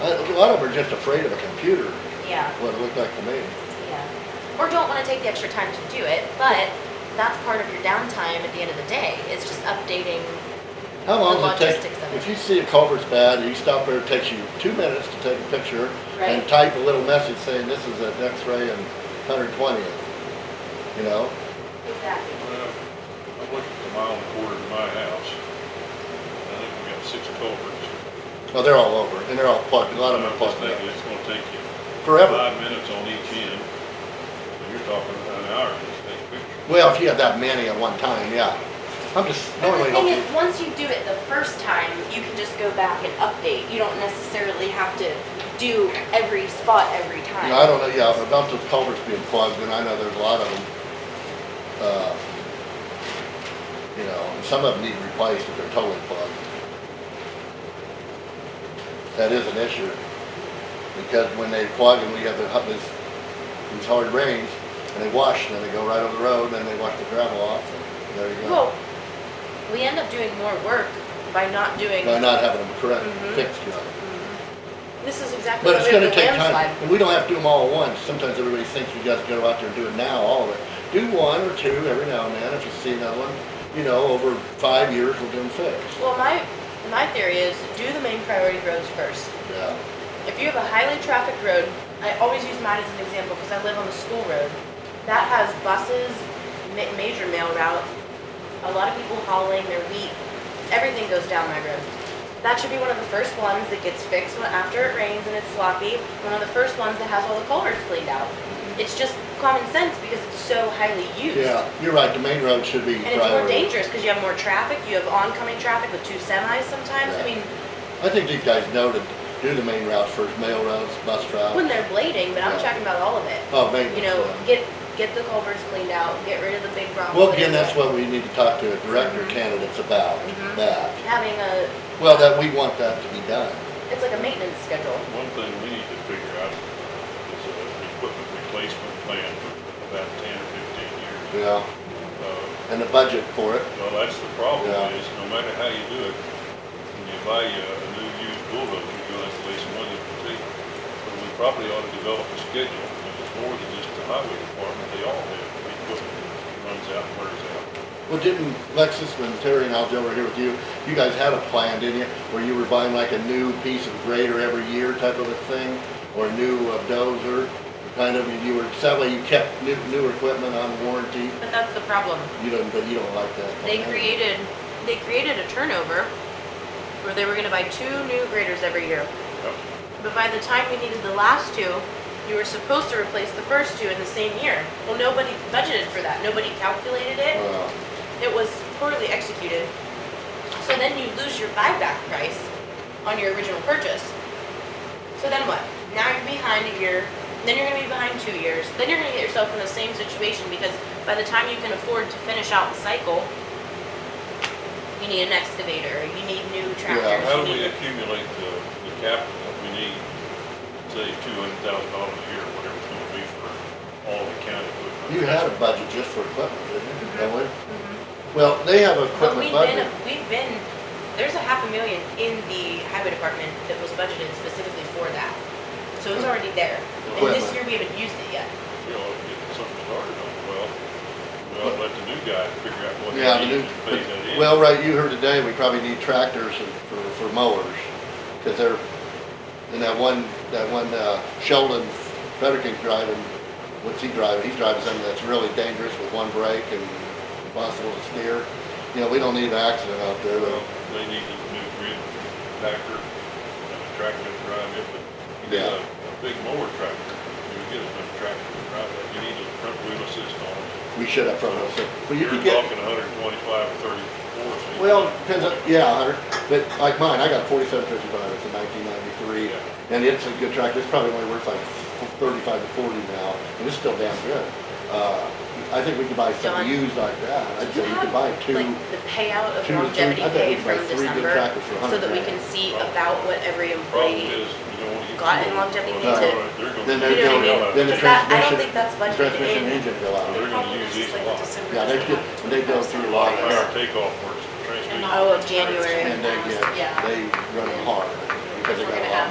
A lot of them are just afraid of a computer, yeah, what it looked like to me. yeah. Or don't wanna take the extra time to do it, but that's part of your downtime at the end of the day, is just updating. How long The does it take? logistics of it. If you see a culvert's bad, you stop there, it takes you two minutes to take a picture and Right. type a little message saying this is an X-ray and 120th, you know? Exactly. Well, I'm looking at the mile and a quarter to my house. I think we got six culverts. Well, they're all over and they're all plugged, a lot of them I'm are just plugged thinking up. it's gonna take you Forever. five minutes on each end. And You're talking about an hour to take a picture. Well, if you have that many at one time, yeah. I'm just But normally the thing hoping. is, once you do it the first time, you can just go back and update. You don't necessarily have to do every spot every time. Yeah, I don't know, yeah, about those culverts being plugged, and I know there's a lot of them. uh, You know, and some of them need replaced if they're totally plugged. That is an issue, because when they plug and we have the, hu- this, these hard rains, and they wash, and then they go right over the road, and then they wash the gravel off, and there you go. Well, we end up doing more work by not doing, By not having them correct, Mhm. fixed, you know. this is exactly But what it's we did gonna with the take landslide. time, and we don't have to do them all at once, sometimes everybody thinks you guys go out there and do it now, all of it. Do one or two every now and then, if you see another one, you know, over five years, we'll do them fixed. Well, my, my theory is do the main priority roads first. Yeah, If you have a highly trafficked road, I always use mine as an example because I live on the school road. That has buses, ma- major mail route, a lot of people hauling their wheat, everything goes down my road. That should be one of the first ones that gets fixed when, after it rains and it's sloppy, one of the first ones that has all the culverts cleaned out. It's just common sense because it's so highly used. yeah, you're right, the main road should be And it's more priority. dangerous because you have more traffic, you have oncoming traffic with two semis sometimes. I Yeah. mean, I think these guys know to do the main routes first, mail routes, bus when routes. they're blading, but I'm Yeah. talking about all of it. Oh, maintenance. You know, yeah. get, get the culverts cleaned out, get rid of Mm-hmm. the big problems. Well, that again, are that's there. what we need to talk to director candidates about, Mhm. that. Having a, Well, that we want that to be done. it's like a maintenance schedule. One thing we need to figure out is a equipment replacement plan for about ten or fifteen years. Yeah. Uh, And the budget for it, Well, that's the problem Yeah. is, no matter how you do it, when you buy a, a new used bulldozer, you're gonna have to lay some money to take. But we probably ought to develop a schedule, and it's more than just the highway department, they all have, equipment runs out, and wears out. Well, didn't Lexus, when Terry and Aljo were here with you, you guys had a plan, didn't you? Where you were buying like a new piece of grader every year type of a thing, or a new uh, dozer, kind of, and you were, sadly, you kept new, new equipment on warranty. But that's the problem. You don't, but you don't like that. They plan. created, they created a turnover where they were gonna buy two new graders every year. Yep. But by the time we needed the last two, you were supposed to replace the first two in the same year. Well, nobody budgeted for that. Nobody calculated it. Wow. It was poorly executed. So then you lose your buyback price on your original purchase. So then what? Now you're behind a year, then you're gonna be behind two years, then you're gonna get yourself in the same situation because by the time you can afford to finish out the cycle, you need an excavator, you need new tractors, you How do we need. accumulate the, the capital that we need, say, two hundred thousand dollars a year, whatever it's gonna be for all the county equipment? You had a budget just for equipment, Mm-hmm. didn't you? Don't we? Well, they have Mhm. But equipment we've been, budget. we've been, there's a half a million in the highway department that was budgeted specifically for that. So Oh. it's already there. And this Equipment. year we haven't used it yet. You know, get something started on, well, we ought to let the new guy figure out what he Yeah, the needs new, and phase that in. well, right, you heard today, we probably need tractors and- for, for mowers, cause they're, and that one, that one, uh, Sheldon Frederick's driving, what's he driving? He's driving something that's really dangerous with one brake and impossible to steer. You know, we don't need an accident out there, Well, but they need a new grid packer and a uh, tractor to drive it, but you get Yeah. a, a big mower tractor, you would get a big tractor to drive it. You need a front wheel assist on it. we should have front wheel assist. Well, you You're could talking get, hundred and twenty-five or thirty-four. so you well, can- depends on, yeah, a hundred, but like mine, I got forty-seven fifty-five, it's a nineteen ninety-three, Yeah. and it's a good tractor, it's probably only worth like thirty-five to forty now, and it's still damn good. Uh, I think we could buy John, some used like that, I'd say you could buy two. Like the payout of two to three- longevity I bet pay it's from like three good December, tractors for a so hundred that we grand. can see Right. about what every Problem employee. is, you don't wanna get. got too in old. longevity Well, to- they're Then gonna- You they're know what I going, mean? then the Because that- I don't transmission, think that's budgeted transmission in. engine go They're out. gonna use these a lot. Yeah, they get, they go through a lot Like our takeoff works, the transmission. Oh, of January. and they get, Yeah. they run hard because they got a We're gonna lot of have